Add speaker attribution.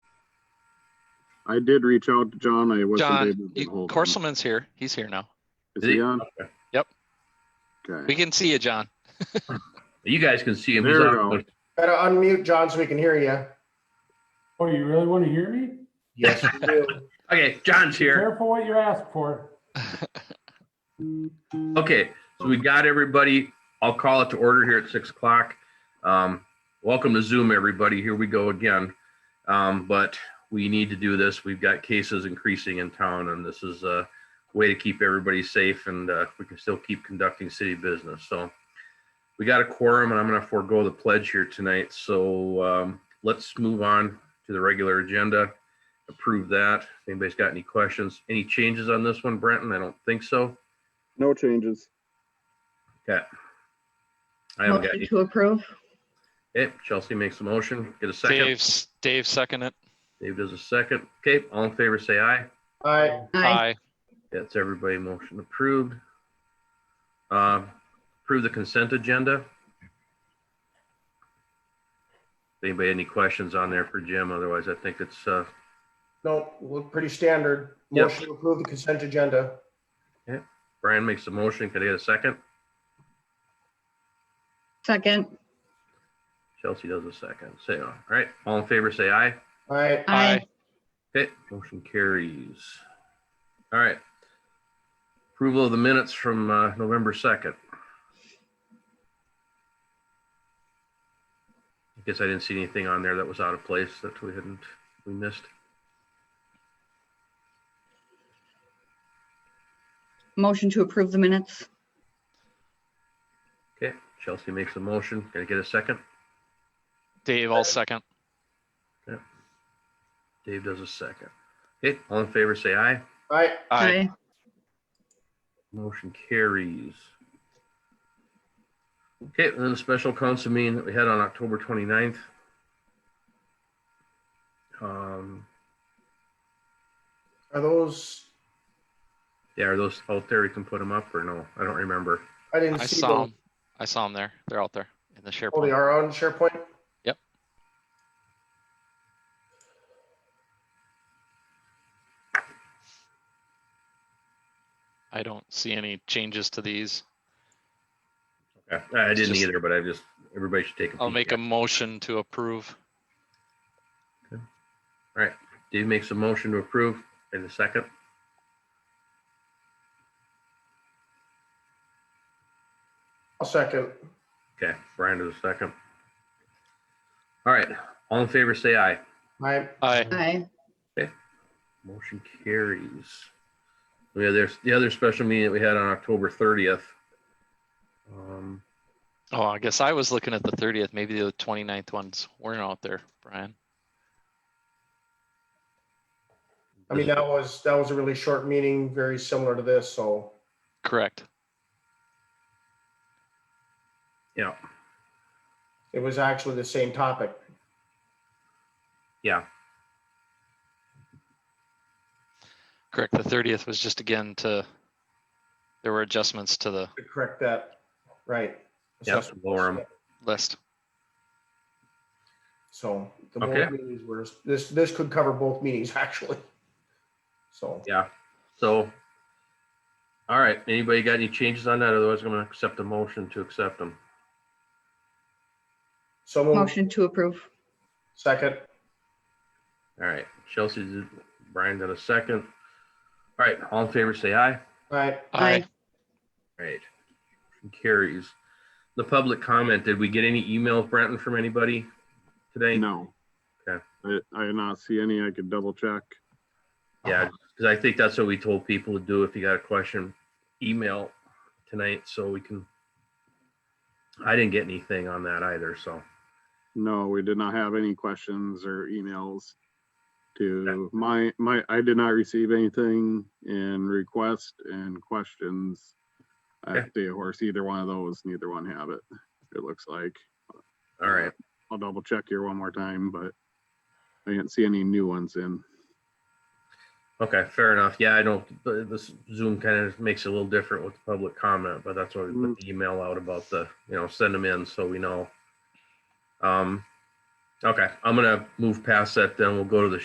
Speaker 1: I did reach out to John. I wasn't able to
Speaker 2: John, you-
Speaker 1: get hold of him.
Speaker 2: Corselman's here. He's here now.
Speaker 1: Is he on?
Speaker 2: Yep. We
Speaker 1: Okay.
Speaker 2: can see you, John.
Speaker 3: You guys can see him. He's
Speaker 1: There we
Speaker 3: on-
Speaker 1: go.
Speaker 4: Better unmute, John, so we can hear you.
Speaker 5: Oh, you really want to hear me?
Speaker 4: Yes, we do.
Speaker 3: Okay, John's
Speaker 5: Be
Speaker 3: here.
Speaker 5: Careful what you ask for.
Speaker 3: Okay, so we got everybody. I'll call it to order here at six o'clock. Um, welcome to Zoom, everybody. Here we go again. Um, but we need to do this. We've got cases increasing in town, and this is a way to keep everybody safe and uh, we can still keep conducting city business. So we got a quorum, and I'm going to forego the pledge here tonight. So um, let's move on to the regular agenda. Approve that. If anybody's got any questions, any changes on this one, Brenton? I don't think so.
Speaker 1: No changes.
Speaker 3: I haven't got
Speaker 6: Motion
Speaker 3: any.
Speaker 6: to approve.
Speaker 3: Okay, Chelsea makes a motion. Get a second.
Speaker 2: Dave's, Dave second it.
Speaker 3: Dave does a second. Okay, all in favor, say aye.
Speaker 4: All right,
Speaker 6: Aye.
Speaker 2: Aye.
Speaker 3: That's everybody. Motion approved. Uh, Approve the consent agenda. Anybody any questions on there for Jim? Otherwise, I think it's, uh,
Speaker 4: no, we're pretty standard.
Speaker 3: Yep.
Speaker 4: Motion to approve the consent agenda.
Speaker 3: Brian makes a motion. Can I get a second?
Speaker 6: Second.
Speaker 3: Chelsea does a second. Say, all right, all in favor, say aye.
Speaker 4: All right,
Speaker 2: Aye.
Speaker 3: Okay, motion carries. All right. Approval of the minutes from uh, November 2nd. I guess I didn't see anything on there that was out of place that we hadn't, we missed.
Speaker 6: Motion to approve the minutes.
Speaker 3: Okay, Chelsea makes a motion. Can I get a second?
Speaker 2: Dave, I'll second.
Speaker 3: Dave does a second. Okay, all in favor, say aye.
Speaker 4: all right,
Speaker 2: Aye.
Speaker 3: Motion carries. Okay, and then the special council meeting that we had on October 29th. Um,
Speaker 4: are those,
Speaker 3: yeah, are those out there? You can put them up or no? I don't remember.
Speaker 4: I didn't
Speaker 2: I
Speaker 4: see
Speaker 2: saw
Speaker 4: them.
Speaker 2: him. I saw him there. They're out there in the
Speaker 4: Oh, they
Speaker 2: SharePoint.
Speaker 4: are on SharePoint?
Speaker 2: Yep. I don't see any changes to these.
Speaker 3: Okay, I didn't
Speaker 2: just-
Speaker 3: either, but I just, everybody should take a peek.
Speaker 2: I'll make a
Speaker 3: them.
Speaker 2: motion to approve.
Speaker 3: Dave makes a motion to approve in a second.
Speaker 4: I'll second.
Speaker 3: Okay, Brian does a second. All right, all in favor, say aye.
Speaker 4: All right,
Speaker 2: Aye.
Speaker 6: Aye.
Speaker 3: Motion carries. Yeah, there's the other special meeting that we had on October 30th. Um,
Speaker 2: Oh, I guess I was looking at the 30th. Maybe the 29th ones weren't out there, Brian.
Speaker 4: I mean, that was, that was a really short meeting, very similar to this, so.
Speaker 2: Correct.
Speaker 3: Yeah,
Speaker 4: It was actually the same topic.
Speaker 3: yeah,
Speaker 2: Correct. The 30th was just again to, there were adjustments to the
Speaker 4: to Correct that, right.
Speaker 3: Yep, lower 'em.
Speaker 2: list.
Speaker 4: So the
Speaker 3: Okay.
Speaker 4: both meetings were, this, this could cover both meetings, actually. So,
Speaker 3: yeah. So, all right, anybody got any changes on that? Otherwise, I'm gonna accept a motion to accept them.
Speaker 4: so moved.
Speaker 6: Motion to approve.
Speaker 4: second,
Speaker 3: All right, Chelsea, did- Brian got a second. All right, all in favor, say aye.
Speaker 4: all right,
Speaker 2: Aye.
Speaker 3: All right. Motion Carries. The public comment, did we get any emails, Brenton, from anybody today?
Speaker 1: No.
Speaker 3: Okay.
Speaker 1: I, I did not see any. I could double check.
Speaker 3: Yeah, because I think that's what we told people to do. If you got a question, email tonight so we can. I didn't get anything on that either, so.
Speaker 1: No, we did not have any questions or emails to my, my, I did not receive anything in request and questions.
Speaker 3: Okay.
Speaker 1: At the horse, either one of those, neither one have it, it looks like.
Speaker 3: All right.
Speaker 1: I'll double check here one more time, but I didn't see any new ones in.
Speaker 3: Okay, fair enough. Yeah, I don't, th- this Zoom kind of makes it a little different with the public comment, but that's why we put the email out about the, you know, send them in so we know. Um, okay, I'm gonna move past that then. We'll go to the